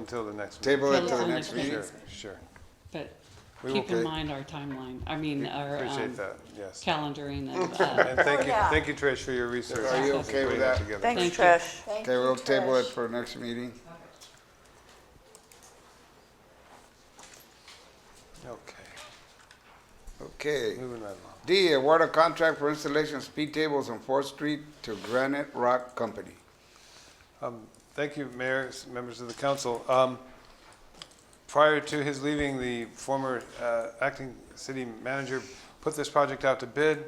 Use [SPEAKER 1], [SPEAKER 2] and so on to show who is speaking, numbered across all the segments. [SPEAKER 1] until the next meeting.
[SPEAKER 2] Table it to
[SPEAKER 3] Table
[SPEAKER 2] the
[SPEAKER 3] it
[SPEAKER 2] next
[SPEAKER 3] till next
[SPEAKER 2] meeting.
[SPEAKER 1] Sure, sure.
[SPEAKER 3] But
[SPEAKER 2] We will
[SPEAKER 3] keep in
[SPEAKER 2] pay-
[SPEAKER 3] mind our timeline, I mean, our um,
[SPEAKER 1] Appreciate that, yes.
[SPEAKER 3] calendaring and, uh,
[SPEAKER 1] And thank you,
[SPEAKER 4] yeah.
[SPEAKER 1] thank you, Trish, for your research.
[SPEAKER 2] Are you
[SPEAKER 1] and
[SPEAKER 2] okay with
[SPEAKER 1] putting that
[SPEAKER 2] that?
[SPEAKER 1] together.
[SPEAKER 4] Thanks,
[SPEAKER 3] Thank you.
[SPEAKER 4] Trish.
[SPEAKER 5] Thank
[SPEAKER 2] Okay,
[SPEAKER 5] you,
[SPEAKER 2] we'll table it
[SPEAKER 5] Trish.
[SPEAKER 2] for next meeting.
[SPEAKER 1] Okay,
[SPEAKER 2] Okay.
[SPEAKER 1] moving right along.
[SPEAKER 2] D, award a contract for installation of speed tables on Fourth Street to Granite Rock Company.
[SPEAKER 1] Um, Thank you, Mayor, s- members of the council. Um, Prior to his leaving, the former uh, acting city manager put this project out to bid.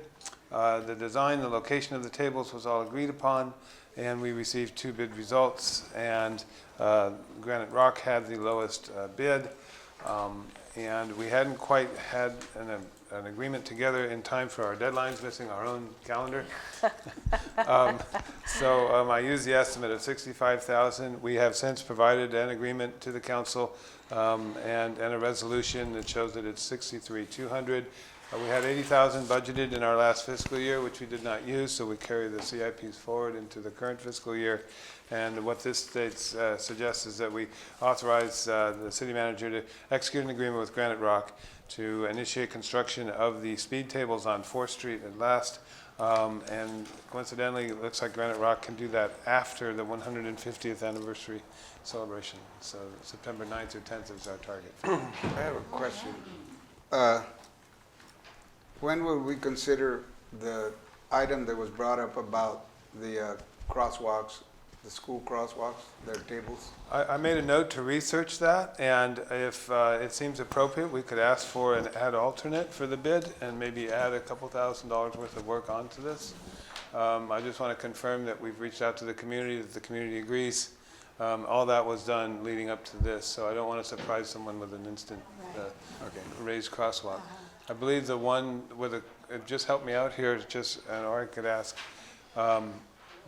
[SPEAKER 1] Uh, The design, the location of the tables was all agreed upon, and we received two bid results. And uh, Granite Rock had the lowest uh, bid. Um, And we hadn't quite had an an agreement together in time for our deadlines, missing our own calendar. Um, So um, I used the estimate of 65,000. We have since provided an agreement to the council um, and, and a resolution that shows that it's 63,200. Uh, We had 80,000 budgeted in our last fiscal year, which we did not use, so we carry the CIPs forward into the current fiscal year. And what this states, uh, suggests is that we authorize uh, the city manager to execute an agreement with Granite Rock to initiate construction of the speed tables on Fourth Street at last. Um, And coincidentally, it looks like Granite Rock can do that after the 150th anniversary celebration. So September 9th or 10th is our target.
[SPEAKER 2] I have a question. Uh, When would we consider the item that was brought up about the uh, crosswalks, the school crosswalks, their tables?
[SPEAKER 1] I, I made a note to research that, and if uh, it seems appropriate, we could ask for an ad alternate for the bid and maybe add a couple thousand dollars worth of work onto this. Um, I just want to confirm that we've reached out to the community, that the community agrees. Um, All that was done leading up to this, so I don't want to surprise someone with an instant uh,
[SPEAKER 2] Okay.
[SPEAKER 1] raised crosswalk. I believe the one with a, it just helped me out here, it's just, and or I could ask, um,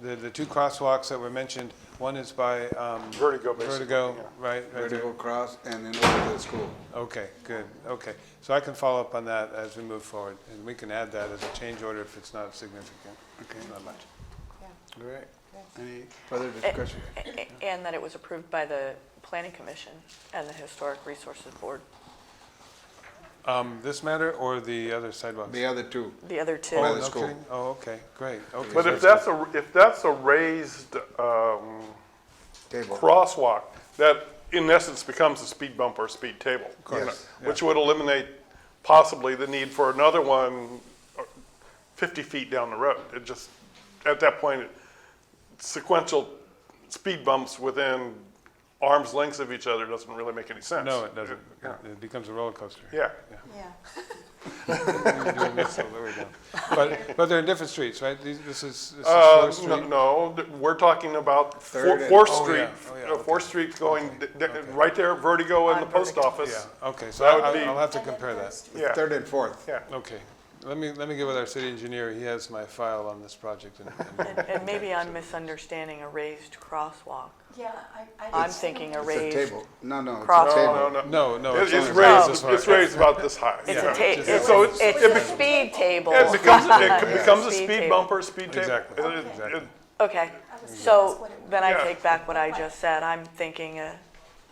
[SPEAKER 1] the, the two crosswalks that were mentioned, one is by, um.
[SPEAKER 6] Vertigo, basically,
[SPEAKER 1] Vertigo, right, right there.
[SPEAKER 2] Vertical cross and then over to the school.
[SPEAKER 1] Okay, good, okay. So I can follow up on that as we move forward, and we can add that as a change order if it's not significant.
[SPEAKER 2] Okay.
[SPEAKER 1] Not much.
[SPEAKER 2] All right. Any further discussion?
[SPEAKER 4] A- a- And that it was approved by the Planning Commission and the Historic Resources Board,
[SPEAKER 1] Um, this matter or the other sidewalks?
[SPEAKER 2] The other two.
[SPEAKER 4] the other two.
[SPEAKER 2] By
[SPEAKER 1] Oh,
[SPEAKER 2] the
[SPEAKER 1] no
[SPEAKER 2] school.
[SPEAKER 1] kidding? Oh, okay, great, okay.
[SPEAKER 6] But if that's a, if that's a raised um,
[SPEAKER 2] Table.
[SPEAKER 6] crosswalk, that in essence becomes a speed bump or a speed table.
[SPEAKER 1] course,
[SPEAKER 6] Yes.
[SPEAKER 1] yeah.
[SPEAKER 6] Which would eliminate possibly the need for another one uh, 50 feet down the road. It just, at that point, sequential speed bumps within arm's lengths of each other doesn't really make any sense.
[SPEAKER 1] No, it doesn't. It-
[SPEAKER 6] Yeah.
[SPEAKER 1] It becomes a roller coaster.
[SPEAKER 6] Yeah.
[SPEAKER 5] Yeah.
[SPEAKER 1] We're doing this all the way down. But, but they're in different streets, right? These- This is, this is
[SPEAKER 6] Uh,
[SPEAKER 1] Fourth
[SPEAKER 6] no,
[SPEAKER 1] Street?
[SPEAKER 6] no, th- we're talking about
[SPEAKER 2] Third
[SPEAKER 6] Four-
[SPEAKER 2] and-
[SPEAKER 6] Fourth
[SPEAKER 1] oh,
[SPEAKER 6] Street,
[SPEAKER 1] yeah, oh, yeah,
[SPEAKER 6] uh, Fourth Street going, d- d- right there, Vertigo and the post office.
[SPEAKER 1] Yeah, okay, so
[SPEAKER 6] That would
[SPEAKER 1] I'll,
[SPEAKER 6] be-
[SPEAKER 1] I'll have to compare that.
[SPEAKER 6] Yeah,
[SPEAKER 2] Third and fourth.
[SPEAKER 6] yeah.
[SPEAKER 1] Okay, let me, let me get with our city engineer, he has my file on this project and.
[SPEAKER 4] And- And maybe I'm misunderstanding a raised crosswalk.
[SPEAKER 5] Yeah, I, I.
[SPEAKER 4] I'm
[SPEAKER 5] just-
[SPEAKER 4] thinking a
[SPEAKER 2] It's a
[SPEAKER 4] raised.
[SPEAKER 2] table. No, no, it's
[SPEAKER 4] cross-
[SPEAKER 2] a
[SPEAKER 6] No,
[SPEAKER 2] table.
[SPEAKER 6] no, no.
[SPEAKER 1] No, no.
[SPEAKER 6] It- It's
[SPEAKER 1] only-
[SPEAKER 4] this
[SPEAKER 6] raised,
[SPEAKER 1] high.
[SPEAKER 6] it's raised about this high.
[SPEAKER 4] It's
[SPEAKER 6] yeah.
[SPEAKER 4] a ta,
[SPEAKER 1] just-
[SPEAKER 4] it's
[SPEAKER 6] So
[SPEAKER 4] a,
[SPEAKER 6] it's-
[SPEAKER 4] it's
[SPEAKER 6] it
[SPEAKER 4] a
[SPEAKER 6] bec-
[SPEAKER 4] speed table.
[SPEAKER 6] It becomes, it becomes a
[SPEAKER 4] Speed
[SPEAKER 6] speed
[SPEAKER 4] table.
[SPEAKER 6] bumper, speed table.
[SPEAKER 1] Exactly.
[SPEAKER 6] It- it-
[SPEAKER 1] Exactly.
[SPEAKER 6] it-
[SPEAKER 4] Okay,
[SPEAKER 5] I was- that's
[SPEAKER 4] so
[SPEAKER 5] what it was.
[SPEAKER 4] then I
[SPEAKER 6] Yeah.
[SPEAKER 4] take back what I just said. I'm thinking a,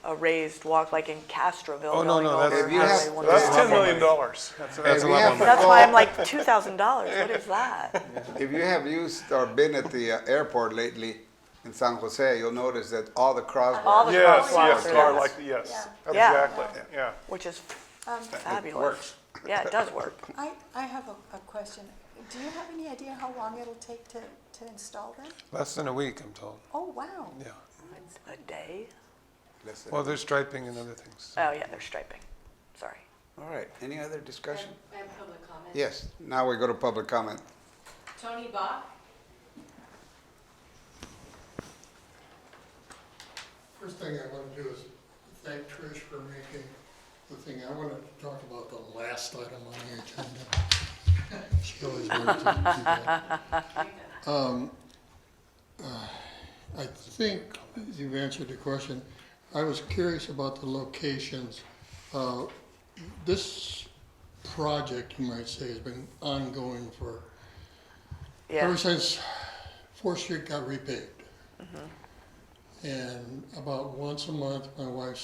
[SPEAKER 4] a raised walk like in Castroville
[SPEAKER 1] Oh, no,
[SPEAKER 4] going
[SPEAKER 1] no, that's-
[SPEAKER 4] over.
[SPEAKER 2] If you
[SPEAKER 4] Highway
[SPEAKER 2] have-
[SPEAKER 4] 101.
[SPEAKER 6] That's $10 million. That's-
[SPEAKER 1] That's a
[SPEAKER 2] Hey, we
[SPEAKER 1] lot
[SPEAKER 2] have
[SPEAKER 1] more.
[SPEAKER 2] to
[SPEAKER 4] That's why I'm
[SPEAKER 2] call-
[SPEAKER 4] like, two thousand dollars, what is that?
[SPEAKER 2] If you have used or been at the uh, airport lately in San Jose, you'll notice that all the
[SPEAKER 4] All
[SPEAKER 2] crosswalks.
[SPEAKER 4] the
[SPEAKER 6] Yes,
[SPEAKER 4] crosswalks
[SPEAKER 6] yes,
[SPEAKER 4] are
[SPEAKER 6] are
[SPEAKER 4] nice.
[SPEAKER 6] like, yes,
[SPEAKER 4] Yeah.
[SPEAKER 6] exactly, yeah.
[SPEAKER 4] Which is
[SPEAKER 5] Um,
[SPEAKER 4] fabulous. Yeah, it does work.
[SPEAKER 5] I, I have a, a question. Do you have any idea how long it'll take to, to install them?
[SPEAKER 1] Less than a week, I'm told,
[SPEAKER 5] Oh, wow.
[SPEAKER 1] yeah.
[SPEAKER 4] A day?
[SPEAKER 2] Listen.
[SPEAKER 1] Well, there's striping and other things.
[SPEAKER 4] Oh, yeah, they're striping. Sorry.
[SPEAKER 2] All right, any other discussion?
[SPEAKER 7] I have public comment.
[SPEAKER 2] Yes, now we go to public comment.
[SPEAKER 7] Tony Bach.
[SPEAKER 8] First thing I want to do is thank Trish for making the thing. I wanted to talk about the last item on the agenda. She always wanted to do that. Um, uh, I think you've answered the question. I was curious about the locations. Uh, This project, you might say, has been ongoing for,
[SPEAKER 4] Yeah.
[SPEAKER 8] ever since Fourth Street got repaved. And about once a month, my wife